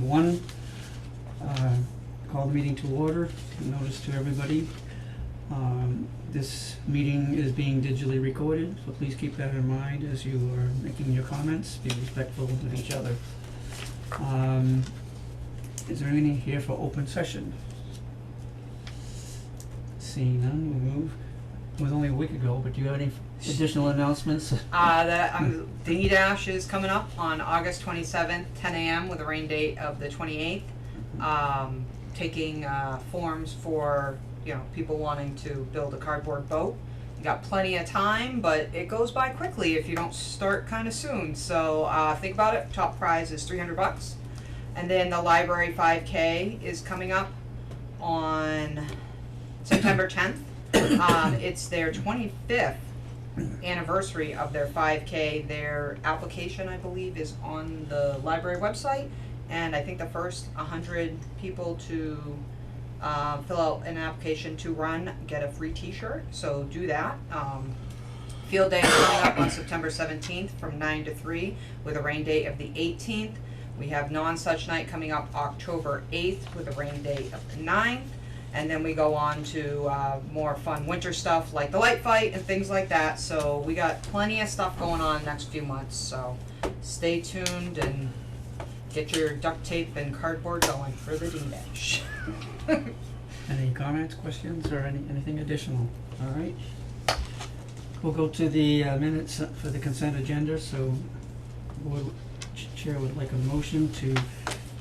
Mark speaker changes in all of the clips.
Speaker 1: one. Uh, Call the meeting to order, notice to everybody. Um, This meeting is being digitally recorded, so please keep that in mind as you are making your comments, be respectful of each other. Um, Is there anything here for open session? Seeing none, we move. It was only a week ago, but do you have any additional announcements?
Speaker 2: Uh, the, um, the Need Ash is coming up on August twenty-seventh, ten AM with a rain date of the twenty-eighth. Um, taking, uh, forms for, you know, people wanting to build a cardboard boat. You got plenty of time, but it goes by quickly if you don't start kinda soon, so, uh, think about it, top prize is three hundred bucks. And then the library five K is coming up on September tenth. Um, it's their twenty-fifth anniversary of their five K. Their application, I believe, is on the library website. And I think the first hundred people to uh, fill out an application to run get a free T-shirt. So do that. Um, field day is coming up on September seventeenth from nine to three with a rain date of the eighteenth. We have non-such night coming up October eighth with a rain date of the 9th. And then we go on to uh, more fun winter stuff like the light fight and things like that. So we got plenty of stuff going on next few months. So stay tuned and get your duct tape and cardboard going for the D-Dash.
Speaker 1: Any comments, questions, or any, anything additional? All right. We'll go to the uh, minutes for the consent agenda, so would, ch- Chair would like a motion to,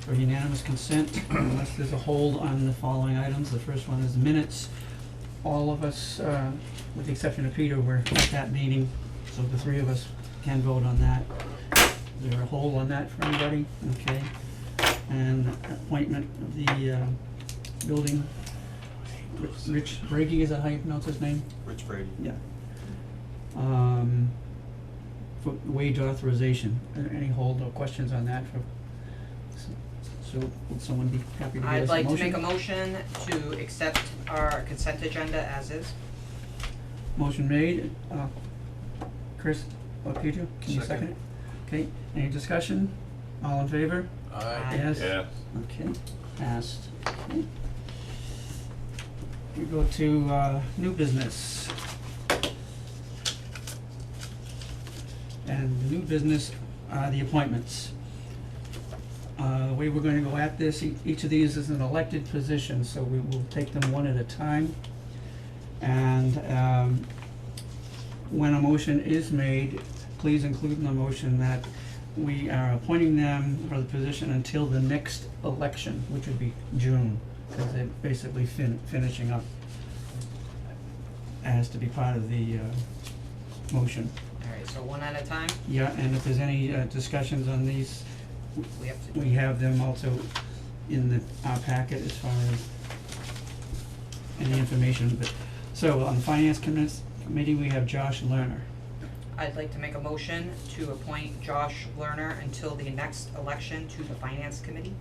Speaker 1: for unanimous consent, unless there's a hold on the following items. The first one is minutes. All of us, uh, with the exception of Peter, were at that meeting, so the three of us can vote on that. Is there a hold on that for anybody? Okay. And appointment of the, uh, building Rich- Rich Brady, is that how you pronounce his name?
Speaker 3: Rich Brady.
Speaker 1: Yeah. Um, for wage authorization, are there any hold or questions on that for, s- so, would someone be happy to give
Speaker 2: I'd
Speaker 1: us a
Speaker 2: like to make a
Speaker 1: motion?
Speaker 2: motion to accept our consent agenda as is.
Speaker 1: Motion made, uh, Chris or Peter, can you second
Speaker 3: Second.
Speaker 1: it? Okay, any discussion? All in favor?
Speaker 3: Uh,
Speaker 2: Aye.
Speaker 1: Yes?
Speaker 4: Yeah,
Speaker 1: Okay, passed. Okay. We go to, uh, new business. And the new business are the appointments. Uh, we were gonna go at this, e- each of these is an elected position, so we will take them one at a time. And, um, when a motion is made, please include in the motion that we are appointing them for the position until the next election, which would be June, because they're basically fin- finishing up. As to be part of the, uh, motion.
Speaker 2: Alright, so one at a time,
Speaker 1: Yeah, and if there's any, uh, discussions on these,
Speaker 2: we have to do.
Speaker 1: we have them also in the, our packet as far as any information, but, so on the finance commis- committee, we have Josh Lerner.
Speaker 2: I'd like to make a motion to appoint Josh Lerner until the next election to the finance committee.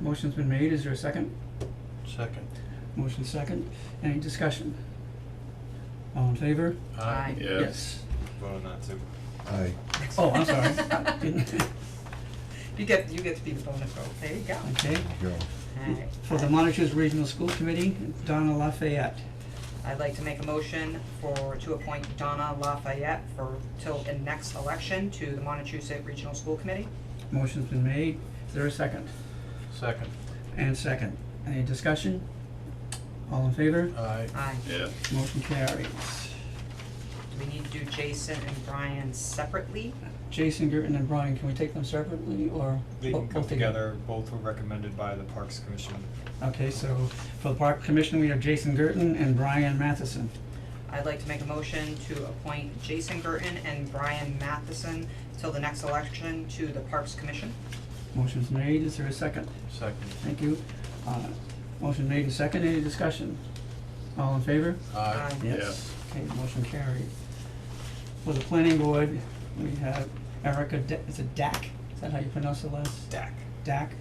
Speaker 1: Motion's been made, is there a second?
Speaker 3: Second.
Speaker 1: Motion second, any discussion? All in favor?
Speaker 2: Aye.
Speaker 4: yes.
Speaker 3: Vote on that too.
Speaker 5: Aye.
Speaker 1: Oh, I'm sorry. Didn't-
Speaker 2: You get, you get to be the bonus vote, there you go.
Speaker 1: Okay,
Speaker 5: Go.
Speaker 2: Alright.
Speaker 1: for the Montrose Regional School Committee, Donna Lafayette.
Speaker 2: I'd like to make a motion for, to appoint Donna Lafayette for, till the next election to the Montechusett Regional School Committee.
Speaker 1: Motion's been made, is there a second?
Speaker 3: Second.
Speaker 1: And second, any discussion? All in favor?
Speaker 3: Aye.
Speaker 2: Aye.
Speaker 4: Yeah,
Speaker 1: Motion carries.
Speaker 2: Do we need to do Jason and Brian separately?
Speaker 1: Jason Gerton and Brian, can we take them separately or Oh,
Speaker 3: They
Speaker 1: bo-
Speaker 3: can come
Speaker 1: both together?
Speaker 3: together, both were recommended by the Parks Commission.
Speaker 1: Okay, so for the Park Commission, we have Jason Gerton and Brian Matheson.
Speaker 2: I'd like to make a motion to appoint Jason Gurton and Brian Matheson till the next election to the Parks Commission.
Speaker 1: Motion's made, is there a second?
Speaker 3: Second.
Speaker 1: Thank you. Uh, motion made and second, any discussion? All in favor?
Speaker 2: Aye.
Speaker 1: Yes. Okay, motion carried. For the planning board, we have Erica, Da- is it Dak? Is that how you pronounce the last?
Speaker 3: Dak.
Speaker 1: Dak.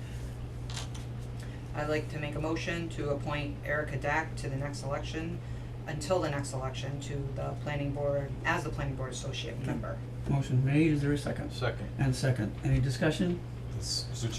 Speaker 2: I'd like to make a motion to appoint Erica Dack to the next election, until the next election, to the planning board, as the planning board associate member.
Speaker 1: Motion made, is there a second?
Speaker 3: Second.
Speaker 1: And second, any discussion?
Speaker 3: This, so